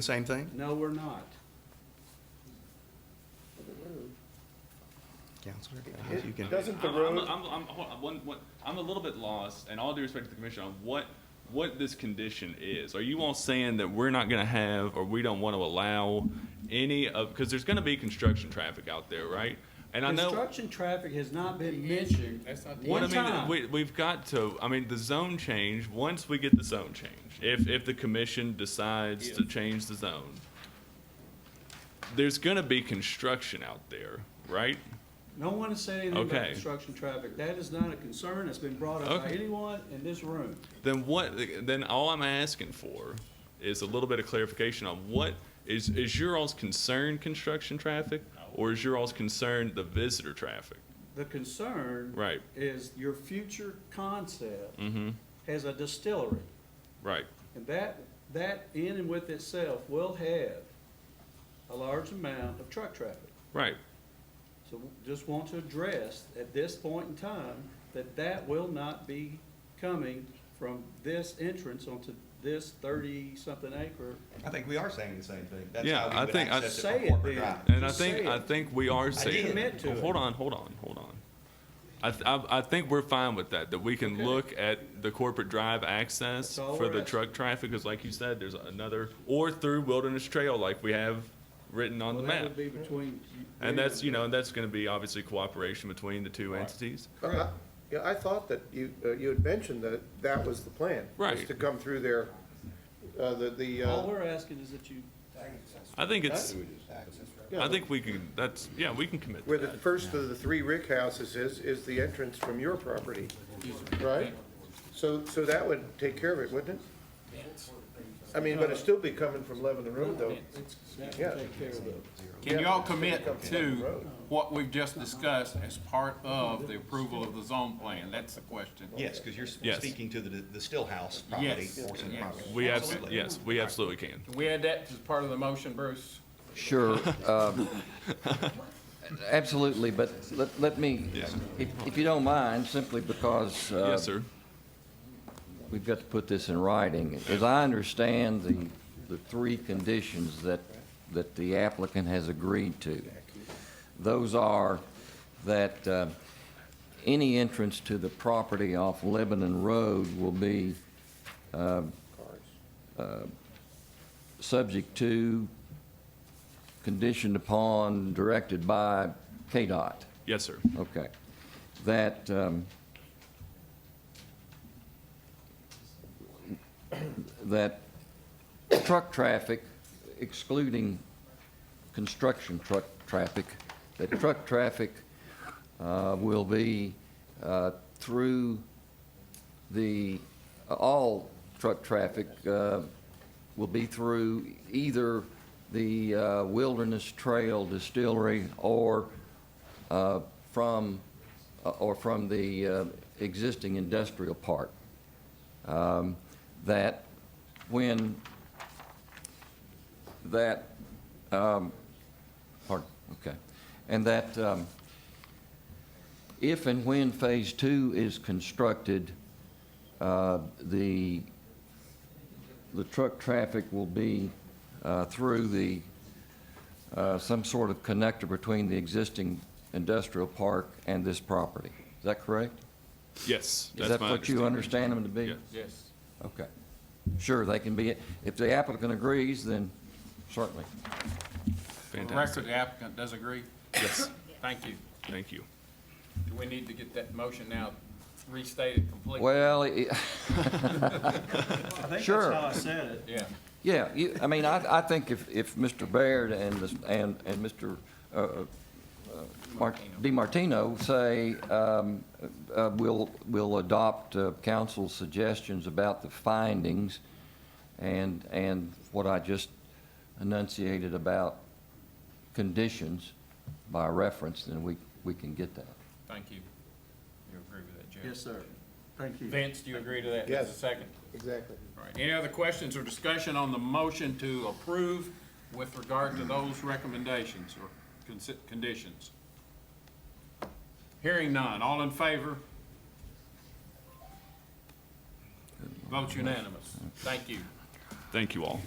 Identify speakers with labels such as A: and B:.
A: The same thing?
B: No, we're not.
A: Counselor?
C: It
A: You can-
C: Doesn't the
D: I'm-
C: road,
D: I'm, I'm, I'm, hold on, one, one, I'm a little bit lost, and all due respect to the commission, on what, what this condition is. Are you all saying that we're not gonna have, or we don't wanna allow any of, because there's gonna be construction traffic out there, right? And I know,
B: Construction traffic has not been mentioned
D: what I
B: one
D: mean,
B: time.
D: we, we've got to, I mean, the zone change, once we get the zone change, if, if the commission decides to change the zone, there's gonna be construction out there, right?
B: No one has said anything about
D: Okay.
B: construction traffic. That is not a concern that's been brought up by
D: Okay.
B: anyone in this room.
D: then what then all i'm asking for is a little bit of clarification on what is is your all's concern construction traffic or is your all's concern the visitor traffic
B: The concern
D: right
B: is your future concept
D: mm-hmm
B: has a distillery.
D: right
B: And that, that in and with itself will have a large amount of truck traffic.
D: right
B: So w- just want to address at this point in time that that will not be coming from this entrance onto this thirty-something acre.
A: I think we are saying the same thing. That's
D: Yeah,
A: how we
D: I
A: would
D: think I-
A: access it from
B: Say it
A: corporate
B: then.
A: drive.
D: and i
B: Just
D: think
B: say
D: i
B: it.
D: think we are saying
B: Commit to
D: Oh,
B: it.
D: hold on hold on hold on I, th- I, I think we're fine with that. That we can
B: Okay.
D: look at the corporate drive access
B: That's all
D: for
B: we're
D: the
B: asking.
D: truck traffic, because, like you said, there's another or through Wilderness Trail, like we have written on
B: Well,
D: the
B: that
D: map.
B: would be between. you-
D: And that's, you know, and that's going to be obviously cooperation between the two entities.
C: But I- Uh-huh. yeah, I thought that you, uh, you had mentioned that that was the plan. was
D: Right.
C: to come through there, uh, the, the,
B: All
C: uh,
B: we're asking is that you,
D: I think it's,
C: yeah,
D: I think we can, that's, yeah, we can commit to
C: where the
D: that.
C: first of the three Rick houses is, is the entrance from your property, right? So, so that would take care of it, wouldn't it? I mean, but it'd still be coming from Lebanon Road, though.
B: that
C: Yeah.
B: would take care of it.
E: Can you all commit
C: Come from Lebanon
E: to
C: Road.
E: what we've just discussed as part of the approval of the zone plan? That's the question.
A: Yes, because you're
D: Yes.
A: speaking to the, the Stillhouse property,
E: Yes.
A: Orson
E: Yes.
A: property.
D: We absolutely,
A: Absolutely.
D: yes, we absolutely can.
E: Can we add that as part of the motion, Bruce?
F: Sure. um, Absolutely, but let, let me,
D: Yeah.
F: if, if you don't mind, simply because. uh,
D: Yes, sir.
F: We've got to put this in writing. As I understand the, the three conditions that, that the applicant has agreed to, those are that uh, any entrance to the property off Lebanon Road will be uh, subject to, conditioned upon, directed by KDOT.
D: Yes, sir.
F: Okay. That, um, that truck traffic, excluding construction truck traffic, that truck traffic uh, will be uh, through the, uh, all truck traffic uh, will be through either the uh, Wilderness Trail Distillery or uh, from, or from the uh, existing industrial park. Um, That when, that, um, pardon, okay, and that um, if and when Phase Two is constructed, uh, the, the truck traffic will be uh, through the uh, some sort of connector between the existing industrial park and this property. Is that correct?
D: Yes, that's
F: Is that
D: my
F: what you
D: understanding.
F: understand them to be?
D: Yes.
E: Yes.
F: Okay. Sure, they can be, if the applicant agrees, then certainly.
D: Fantastic.
E: Record the applicant does agree?
D: Yes,
E: Thank you.
D: thank you.
E: Do we need to get that motion now restated completely?
F: Well, it-
B: I think that's
F: Sure.
B: how I said it.
E: Yeah.
F: yeah, you, I mean, I, I think if, if Mr. Baird and, this- and, and Mr. uh, uh, Mar- DiMartino say, um, uh, we'll, we'll adopt uh, council's suggestions about the findings and, and what I just enunciated about conditions by reference, then we, we can get that.
E: Thank you. You agree with that, Jeff?
B: Yes, sir. Thank you.
E: Vince, do you agree to that?
C: Yes.
E: That's a second.
C: Exactly.
E: All right. Any other questions or discussion on the motion to approve with regard to those recommendations or consi- conditions? Hearing none. All in favor? Vote unanimous. Thank you.
D: Thank you all.